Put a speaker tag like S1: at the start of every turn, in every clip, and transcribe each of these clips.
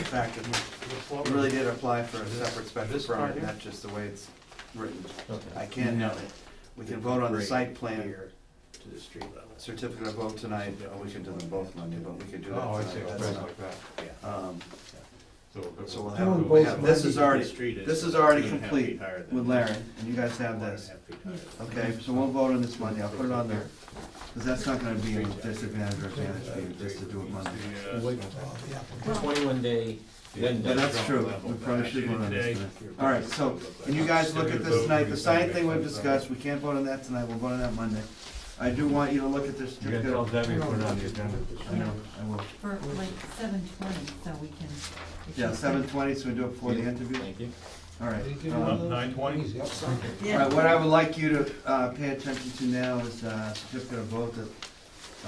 S1: fact that we
S2: Oh,
S1: really did apply for a separate special
S2: This part
S1: permit,
S2: here?
S1: not just the way it's written. I
S2: Okay.
S1: can,
S3: No.
S1: not we can vote on the site plan
S3: Here to the street level.
S1: certificate of vote tonight, or we can do them both Monday, but we could do that
S2: Oh, I see,
S1: tonight.
S2: express
S1: That's not-
S2: like that.
S1: um, So
S2: So.
S1: we'll
S2: we'll-
S1: have,
S2: we'll
S1: we have, this is
S3: The
S1: already,
S3: street
S1: this is
S3: two
S1: already
S3: and a half
S1: complete
S3: feet higher than-
S1: with Larry, and you guys have
S3: One and a
S1: this.
S3: half feet higher than-
S1: Okay, so we'll vote on this Monday, I'll put it on there, because that's not gonna be a disadvantage or advantage for you, just to do it Monday.
S4: Twenty-one day, then.
S1: But that's true, we probably should vote on this tonight. All right, so, and you guys look at this tonight, the sign thing we've discussed, we can't vote on that tonight, we'll vote on that Monday. I do want you to look at this.
S2: You gotta tell Debbie to put it on the agenda.
S1: I know, I will.
S5: for like seven twenty, so we can. if
S1: Yeah,
S5: you-
S1: seven twenty, so we do it before the interview,
S4: Thank you.
S1: all right. um,
S2: Nine twenty?
S1: All
S5: Yeah.
S1: right, what I would like you to uh, pay attention to now is uh, certificate of vote that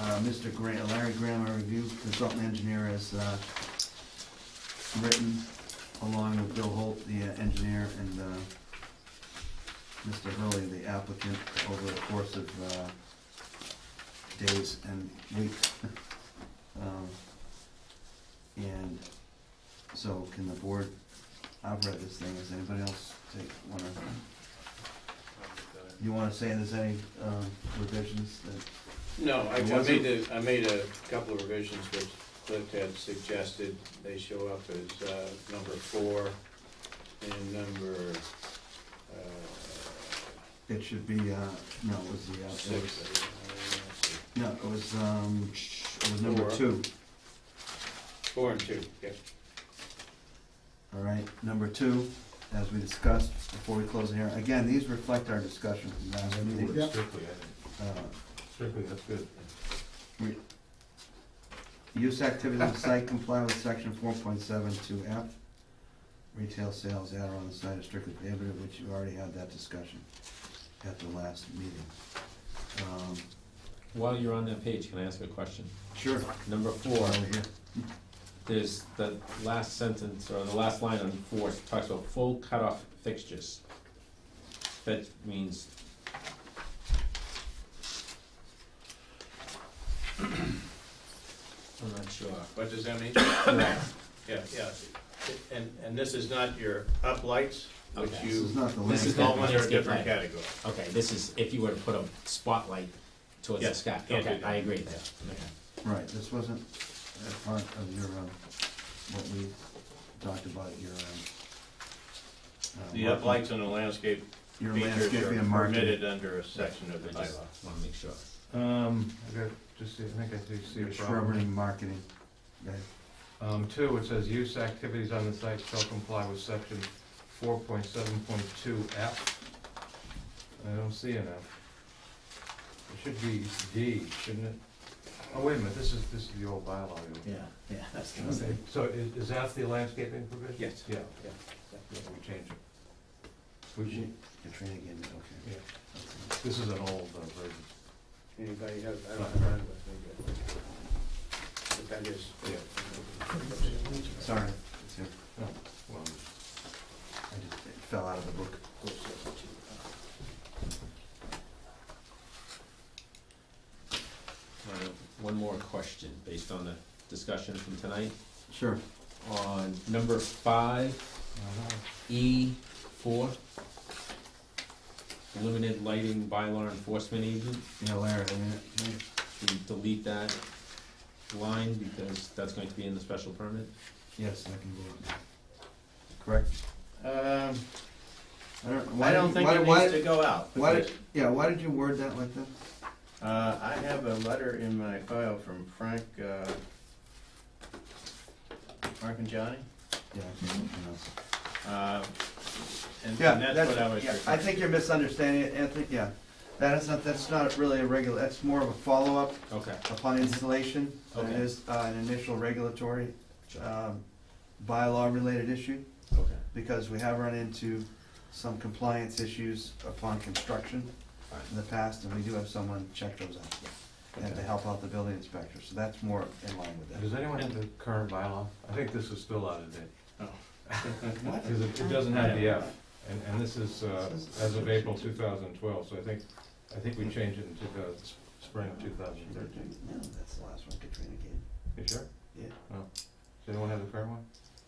S1: uh, Mr. Graham, Larry Graham, our review consultant engineer, has uh, written along with Bill Holt, the uh, engineer, and uh, Mr. Hurley, the applicant, over the course of uh, days and weeks. Um, And so can the board, I've read this thing, does anybody else take, wanna you wanna say there's any um, revisions that,
S3: No, I I
S1: It wasn't-
S3: made the, I made a couple of revisions which Cliff had suggested, they show up as, uh, number four and number, uh,
S1: it should be, uh, no, it was the, uh, it
S3: six.
S1: was,
S3: I don't know, let's see.
S1: no, it was, um, it was number
S3: Four.
S1: two,
S3: Four and two, yeah.
S1: all right? Number two, as we discussed before we close the hearing, again, these reflect our discussion from last meeting.
S2: Strictly, I think.
S1: Uh,
S2: Strictly, that's good.
S1: re- Use activities of site comply with section four point seven two F. Retail sales at or on the site is strictly prohibited, which you already had that discussion at the last meeting. Um,
S4: While you're on that page, can I ask a question?
S1: Sure.
S4: Number four,
S1: Over here.
S4: there's the last sentence, or the last line on four, talks about full cutoff fixtures. That means, I'm not sure.
S3: What does that mean?
S4: Right.
S3: Yeah, yeah. And, and this is not your uplights, which
S4: Okay.
S3: you.
S1: This is not the
S4: This
S1: last.
S4: is not-
S3: fall under a
S4: It's
S3: different
S4: different.
S3: category.
S4: Okay, this is if you were to put a spotlight towards the
S3: Yes,
S4: sky.
S3: can't do
S4: Okay,
S3: that.
S4: I agree there. Okay.
S1: Right, this wasn't a part of your, um, what we talked about, your, um. uh,
S3: The
S1: market-
S3: uplights and the landscape
S1: Your
S3: features
S1: landscaping
S3: are
S1: and marketing.
S3: permitted under a section of the
S4: I just
S3: bylaw.
S4: wanna make sure.
S2: Um, I got, just, see- I think I do see a
S1: Your
S2: problem.
S1: shrubbery and marketing, right?
S2: Um, two, it says use activities on the site shall comply with section four point seven point two F. I don't see an F. It should be D, shouldn't it? Oh, wait a minute, this is, this is the old bylaw.
S3: Yeah,
S2: you-
S3: yeah, that's
S2: Okay, so is, is that the landscaping provision?
S3: Yes.
S2: Yeah,
S3: Yeah.
S2: yeah, we change it. We should,
S1: You're trying to get it, okay.
S2: yeah, this is an old uh, version.
S3: Anybody have, I don't have one with me, but- but that is.
S2: Yeah.
S1: Sorry, it's here.
S2: No, well,
S1: I just, it fell out of the book.
S4: Uh, One more question, based on the discussion from tonight.
S1: Sure.
S4: On number five,
S2: uh-huh.
S4: E four, limited lighting bylaw enforcement agent,
S1: Yeah, Larry, I mean, it-
S4: we delete that line because that's going to be in the special permit.
S1: yes, I can do it now. Correct?
S3: Um,
S1: I don't,
S3: I
S1: why,
S3: don't
S1: did-
S3: think
S1: why,
S3: it needs
S1: why,
S3: to go out.
S1: why,
S3: because,
S1: did- yeah, why did you word that like that?
S3: Uh, I have a letter in my file from Frank, uh, Frank and Johnny.
S1: Yeah, I can't, I know.
S3: Uh, And
S1: Yeah,
S3: and that's
S1: that's-
S3: what I was.
S1: Yeah, I
S3: referring-
S1: think you're misunderstanding it, Anthony, yeah. That is not, that's not really a regular, that's more of a follow-up
S4: Okay.
S1: upon installation than it
S4: Okay.
S1: is uh, an initial regulatory
S4: Sure.
S1: um, bylaw-related issue,
S4: Okay.
S1: because we have run into some compliance issues upon construction
S4: Fine.
S1: in the past, and we do have someone check those out, and to help out the building inspector, so that's more in line with that.
S2: Does anyone have the current bylaw? I think this is still out of date.
S3: Oh.
S2: Because it, it doesn't have the F, and, and this is, uh, as of April two thousand twelve, so I think, I think we changed it in two thousand, spring two thousand thirteen.
S1: No, that's the last one Katrina gave.
S2: You sure?
S1: Yeah.
S2: Oh. Does anyone have the current one?